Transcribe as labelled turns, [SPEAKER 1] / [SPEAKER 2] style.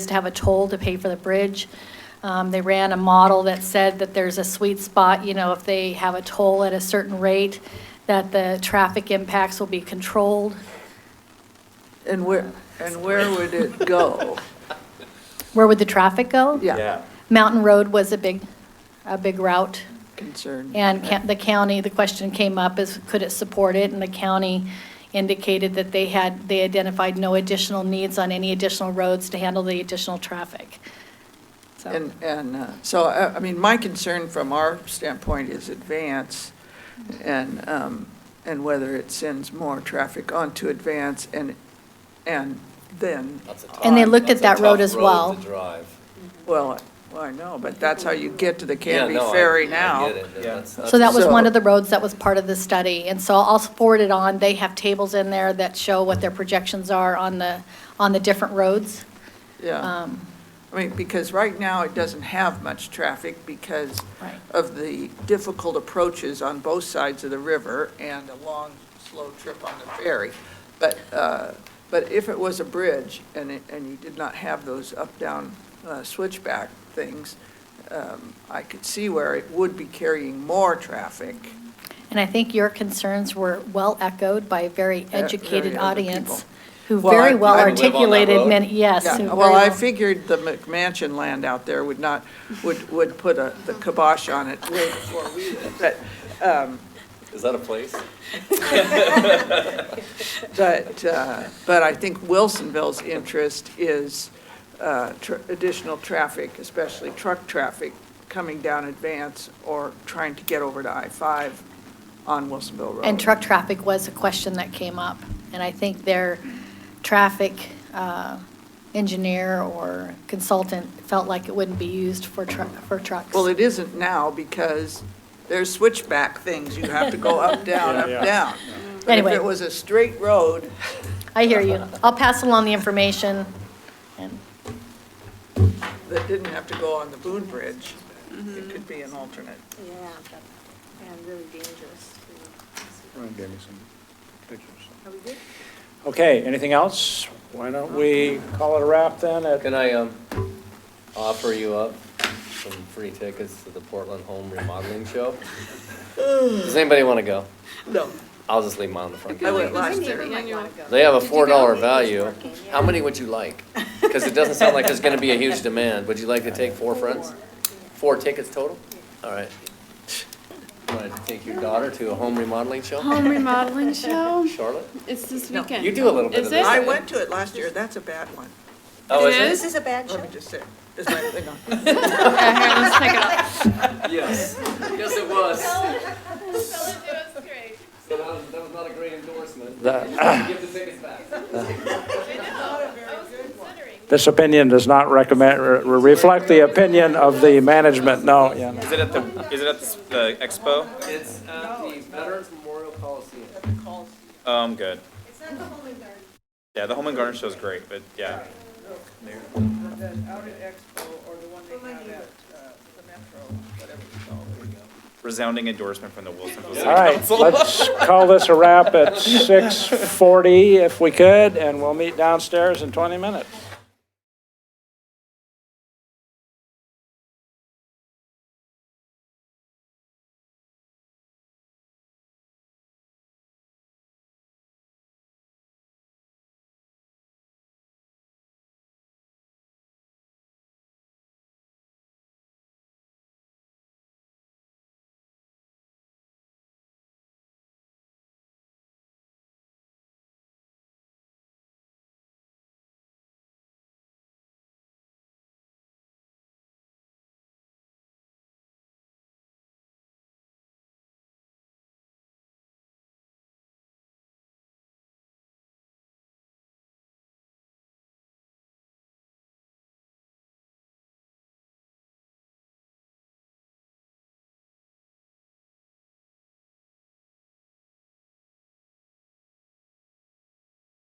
[SPEAKER 1] to have a toll to pay for the bridge. Um, They ran a model that said that there's a sweet spot, you know, if they have a toll at a certain rate, that the traffic impacts will be controlled.
[SPEAKER 2] And where, and where would it go?
[SPEAKER 1] Where would the traffic go?
[SPEAKER 2] Yeah,
[SPEAKER 1] Mountain Road was a big, a big route.
[SPEAKER 2] concern.
[SPEAKER 1] And ca- the county, the question came up is, could it support it? And the county indicated that they had, they identified no additional needs on any additional roads to handle the additional traffic. So,
[SPEAKER 2] And, and, uh, so, I, I mean, my concern from our standpoint is advance and, um, and whether it sends more traffic onto advance and, and then,
[SPEAKER 3] That's a tough-
[SPEAKER 1] And they looked at
[SPEAKER 3] that's a
[SPEAKER 1] that road
[SPEAKER 3] tough
[SPEAKER 1] as well.
[SPEAKER 3] to drive.
[SPEAKER 2] well, I- well, I know, but that's how you get to the
[SPEAKER 3] Yeah,
[SPEAKER 2] Canby
[SPEAKER 3] no, I-
[SPEAKER 2] Ferry
[SPEAKER 3] I
[SPEAKER 2] now.
[SPEAKER 3] get it, and that's-
[SPEAKER 1] so that was one
[SPEAKER 2] Uh, So-
[SPEAKER 1] of the roads that was part of the study. And so I'll forward it on. They have tables in there that show what their projections are on the, on the different roads.
[SPEAKER 2] Yeah,
[SPEAKER 1] Um,
[SPEAKER 2] I mean, because right now it doesn't have much traffic because
[SPEAKER 1] Right.
[SPEAKER 2] of the difficult approaches on both sides of the river and a long, slow trip on the ferry. But, uh, but if it was a bridge and it, and you did not have those up-down uh, switchback things, um, I could see where it would be carrying more traffic.
[SPEAKER 1] And I think your concerns were well echoed by a very
[SPEAKER 2] very
[SPEAKER 1] educated
[SPEAKER 2] other
[SPEAKER 1] audience
[SPEAKER 2] people.
[SPEAKER 1] who
[SPEAKER 2] Well, I-
[SPEAKER 1] very well
[SPEAKER 2] I live on
[SPEAKER 3] that
[SPEAKER 1] articulated
[SPEAKER 3] road.
[SPEAKER 1] many, yes.
[SPEAKER 2] Yeah,
[SPEAKER 1] who very
[SPEAKER 2] Well, I
[SPEAKER 1] well-
[SPEAKER 2] figured the McMansion land out there would not, would, would put a, the kibosh on it way before we, but,
[SPEAKER 3] Is that a place?
[SPEAKER 2] But, uh, but I think Wilsonville's interest is uh, tr- additional traffic, especially truck traffic, coming down Advance or trying to get over to I-5 on Wilsonville Road.
[SPEAKER 1] And truck traffic was a question that came up. And I think their traffic uh, engineer or consultant felt like it wouldn't be used for truck, for trucks.
[SPEAKER 2] Well, it isn't now because there's switchback things. You have to go up, down, up, down. But if
[SPEAKER 1] Anyway.
[SPEAKER 2] it was a straight road,
[SPEAKER 1] I hear you. I'll pass along the information. And
[SPEAKER 2] that didn't have to go on the Boone Bridge, it could be an alternate.
[SPEAKER 4] Yeah, that- and really dangerous. too.
[SPEAKER 5] Ryan gave me some pictures.
[SPEAKER 4] Are we good?
[SPEAKER 5] Okay, anything else? Why don't we call it a wrap then at
[SPEAKER 3] Can I, um, offer you up some free tickets to the Portland Home Remodeling Show? Does anybody want to go?
[SPEAKER 2] No.
[SPEAKER 3] I'll just leave mine on the front.
[SPEAKER 2] I
[SPEAKER 3] counter.
[SPEAKER 2] went last
[SPEAKER 4] My neighbor
[SPEAKER 2] year.
[SPEAKER 4] might wanna go.
[SPEAKER 3] They have a
[SPEAKER 4] Did you
[SPEAKER 3] four dollar
[SPEAKER 4] go?
[SPEAKER 3] value.
[SPEAKER 4] It's working, yeah.
[SPEAKER 3] How many would you like? Because it doesn't sound like there's gonna be a huge demand. Would you like to take four friends? Four tickets total? All right. Want to take your daughter to a home remodeling show?
[SPEAKER 6] Home remodeling show?
[SPEAKER 3] Charlotte?
[SPEAKER 6] It's this weekend.
[SPEAKER 3] You do a little bit
[SPEAKER 6] Is
[SPEAKER 3] of
[SPEAKER 6] it?
[SPEAKER 3] this.
[SPEAKER 2] I went to it last year, that's a bad one.
[SPEAKER 3] Oh, is
[SPEAKER 6] It is?
[SPEAKER 4] This is a bad
[SPEAKER 2] Let
[SPEAKER 4] show.
[SPEAKER 2] me just say, is my thing on?
[SPEAKER 6] Okay, here, let's take it off.
[SPEAKER 3] it? Yes. Yes, it was. So that was, that was not a great endorsement. Give the tickets back.
[SPEAKER 5] This opinion does not recommend, re- reflect the opinion of the management, no, yeah.
[SPEAKER 7] Is it at the, is it at the expo?
[SPEAKER 3] It's at the Veterans Memorial Coliseum.
[SPEAKER 7] Oh, I'm good. It's not the Home and Garden. Yeah, the Home and Garden show's great, but yeah.
[SPEAKER 2] out at Expo or the one they have at uh, the Metro, whatever it's called.
[SPEAKER 7] Resounding endorsement from the Wilsonville City
[SPEAKER 5] All right,
[SPEAKER 7] Council.
[SPEAKER 5] let's call this a wrap at 6:40 if we could, and we'll meet downstairs in 20 minutes.